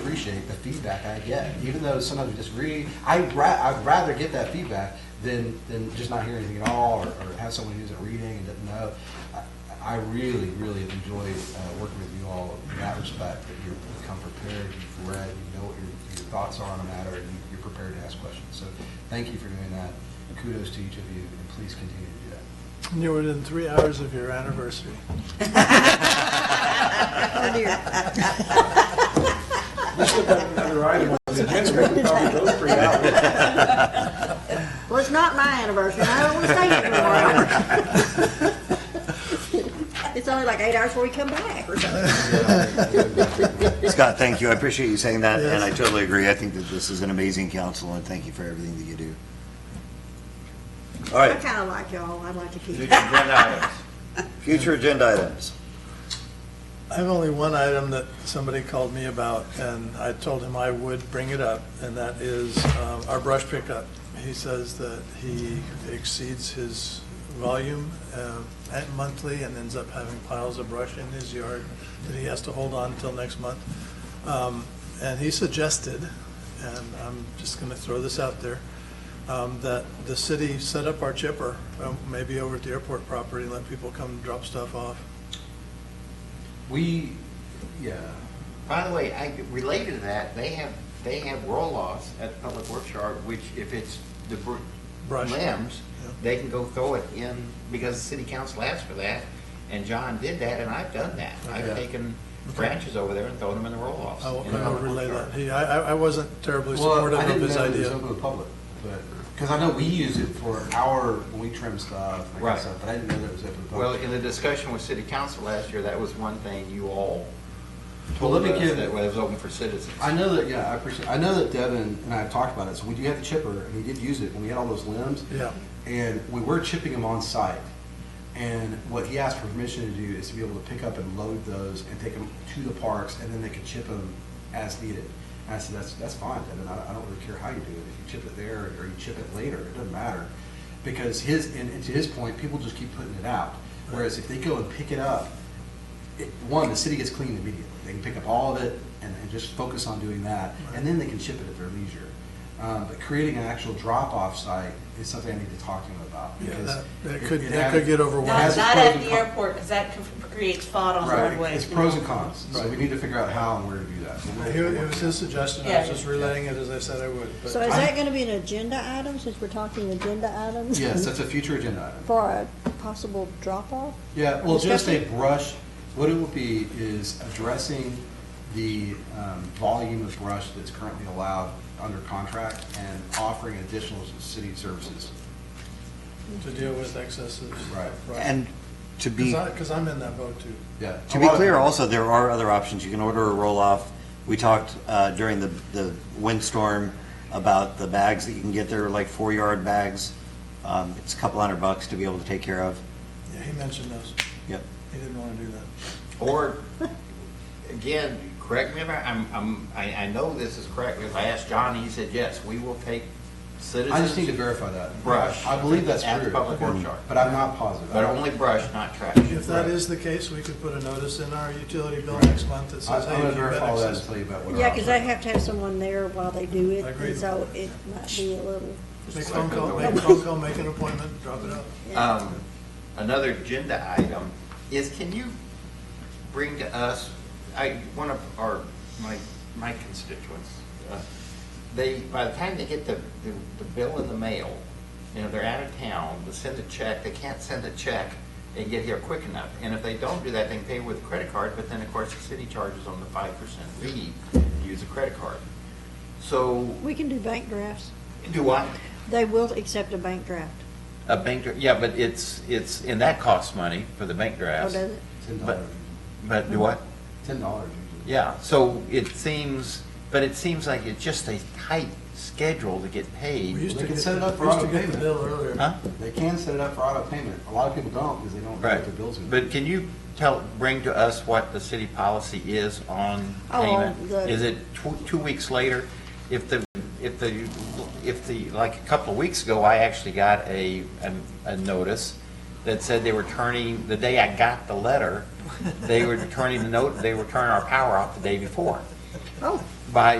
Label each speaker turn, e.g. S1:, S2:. S1: appreciate the feedback I get, even though sometimes we disagree. I ra- I'd rather get that feedback than, than just not hear anything at all, or, or have someone who isn't reading and doesn't know. I- I really, really have enjoyed uh, working with you all in that respect, that you're you come prepared, you've read, you know what your, your thoughts are on a matter, and you- you're prepared to ask questions. So thank you for doing that. Kudos to each of you, and please continue to do that.
S2: And you were within three hours of your anniversary.
S3: Oh, dear. Well, it's not my anniversary, and I don't want to stay here for more hours. It's only like eight hours before we come back or something.
S4: Scott, thank you. I appreciate you saying that, and I
S2: Yes.
S4: totally agree. I think that this is an amazing council, and thank you for everything that you do. All
S3: I
S4: right,
S3: kind of like y'all, I'd like to keep.
S5: Future agenda items.
S4: future agenda items.
S2: I have only one item that somebody called me about, and I told him I would bring it up, and that is um, our brush pickup. He says that he exceeds his volume uh, at monthly and ends up having piles of brush in his yard that he has to hold on until next month. Um, And he suggested, and I'm just going to throw this out there, um, that the city set up our chipper, um, maybe over at the airport property, and let people come drop stuff off.
S1: We, yeah.
S5: By the way, I, related to that, they have, they have roll-offs at the Public Works Yard, which if it's the br-
S2: Brush.
S5: limbs,
S2: Yeah.
S5: they can go throw it in, because the city council asked for that, and John did that, and I've done that. I've
S2: Okay.
S5: taken branches over there and thrown them in the roll-offs.
S2: I will
S5: in
S2: I
S5: the
S2: will
S5: Public Works
S2: relay
S5: Yard.
S2: that. He, I, I- I wasn't terribly
S1: Well,
S2: supportive
S1: I
S2: of
S1: didn't
S2: his
S1: know it was
S2: idea.
S1: open to the public, but, because I know we use it for our, when we trim stuff, and
S5: Right.
S1: stuff, but I didn't know that it was open to the
S5: Well,
S1: public.
S5: in the discussion with city council last year, that was one thing you all
S1: Well,
S5: told
S1: let
S5: us,
S1: me give-
S5: that was open for citizens.
S1: I know that, yeah, I appreciate, I know that Devin and I have talked about it, so we do have the chipper, and we did use it, when we had all those limbs.
S2: Yeah.
S1: And we were chipping them on site, and what he asked for permission to do is to be able to pick up and load those and take them to the parks, and then they could chip them as needed. And I said, that's, that's fine, Devin, I, I don't really care how you do it, if you chip it there, or you chip it later, it doesn't matter. Because his, and and to his point, people just keep putting it out, whereas if they go and pick it up, it- one, the city gets clean immediately. They can pick up all of it and, and just focus on doing that, and then they can ship it at their leisure. Um, but creating an actual drop-off site is something I need to talk to them about.
S2: Yeah,
S1: because
S2: that- that
S1: it-
S2: could-
S1: it
S2: that
S1: has-
S2: could get
S1: it
S2: overwhelming.
S1: has its
S6: Not, not
S1: pros
S6: at
S1: and
S6: the
S1: con-
S6: airport, because that conf- creates thought on
S1: Right,
S6: roadways.
S1: it's pros and cons, so we need to figure out how and where to do that. So we'll-
S2: He- It was his suggestion, I was just relaying it as I said I would.
S3: So
S2: But
S3: is that going to be an agenda item, since we're talking agenda items?
S1: Yes, that's a future agenda item.
S3: For a possible drop-off?
S1: Yeah, well, just a
S3: Discussion?
S1: brush, what it would be is addressing the um, volume of brush that's currently allowed under contract and offering additional city services.
S2: to deal with excesses.
S1: Right.
S4: And to be, to
S2: Because I'm in that boat too.
S1: Yeah.
S4: be clear also, there are other options. You can order a roll-off. We talked uh, during the, the windstorm about the bags that you can get. They're like four-yard bags. Um, It's a couple hundred bucks to be able to take care of.
S2: Yeah, he mentioned those.
S4: Yep.
S2: He didn't want to do that.
S5: Or, again, correct me if I, I'm, I'm, I, I know this is correct, because I asked John, he said, yes, we will take citizens.
S1: I just need to verify that.
S5: Brush.
S1: I believe that's
S5: At the
S1: true.
S5: public works yard.
S1: But I'm not positive.
S5: But only brush, not trash.
S2: If that is the case, we could put a notice in our utility bill next month that
S1: I-
S2: says,
S1: I'm
S2: hey,
S1: gonna
S2: you've got
S1: verify all that and
S2: excess.
S1: tell you about what. our
S3: Yeah, because they
S1: options
S3: have to have someone there while they do it,
S2: Agreed.
S3: and so it might be a little,
S2: Make a phone call, make a phone call, make an appointment, drop it off.
S5: Um, another agenda item is can you bring to us, I, one of our, my, my constituents, uh, they, by the time they get the, the, the bill in the mail, you know, they're out of town, they send a check, they can't send a check and get here quick enough. And if they don't do that, they can pay with a credit card, but then of course the city charges on the five percent fee to use a credit card. So,
S3: we can do bank drafts.
S5: do I,
S3: They will accept a bank draft.
S5: a bank, dra- yeah, but it's, it's, and that costs money for the bank
S3: Oh,
S5: drafts.
S3: does it?
S1: are. Ten
S5: But-
S1: dollars,
S5: But do what?
S1: ten dollars usually.
S5: Yeah, so it seems, but it seems like it's just a tight schedule to get
S2: We
S5: paid.
S2: used
S1: They
S2: to
S1: can
S2: get,
S1: set it up for
S2: used to
S1: auto
S2: get the
S1: payment.
S2: bill earlier.
S5: Huh?
S1: They can set it up for auto payment. A lot of people don't because they don't know
S5: Right.
S1: what their bills are. gonna
S5: But
S1: be.
S5: can you tell, bring to us what the city policy is on
S3: Oh,
S5: payment?
S3: the-
S5: Is it tw- two weeks later? If the, if the, if the, like a couple of weeks ago, I actually got a, a- a notice that said they were turning, the day I got the letter, they were turning the note, they were turning our power off the day before.
S3: Oh.
S5: by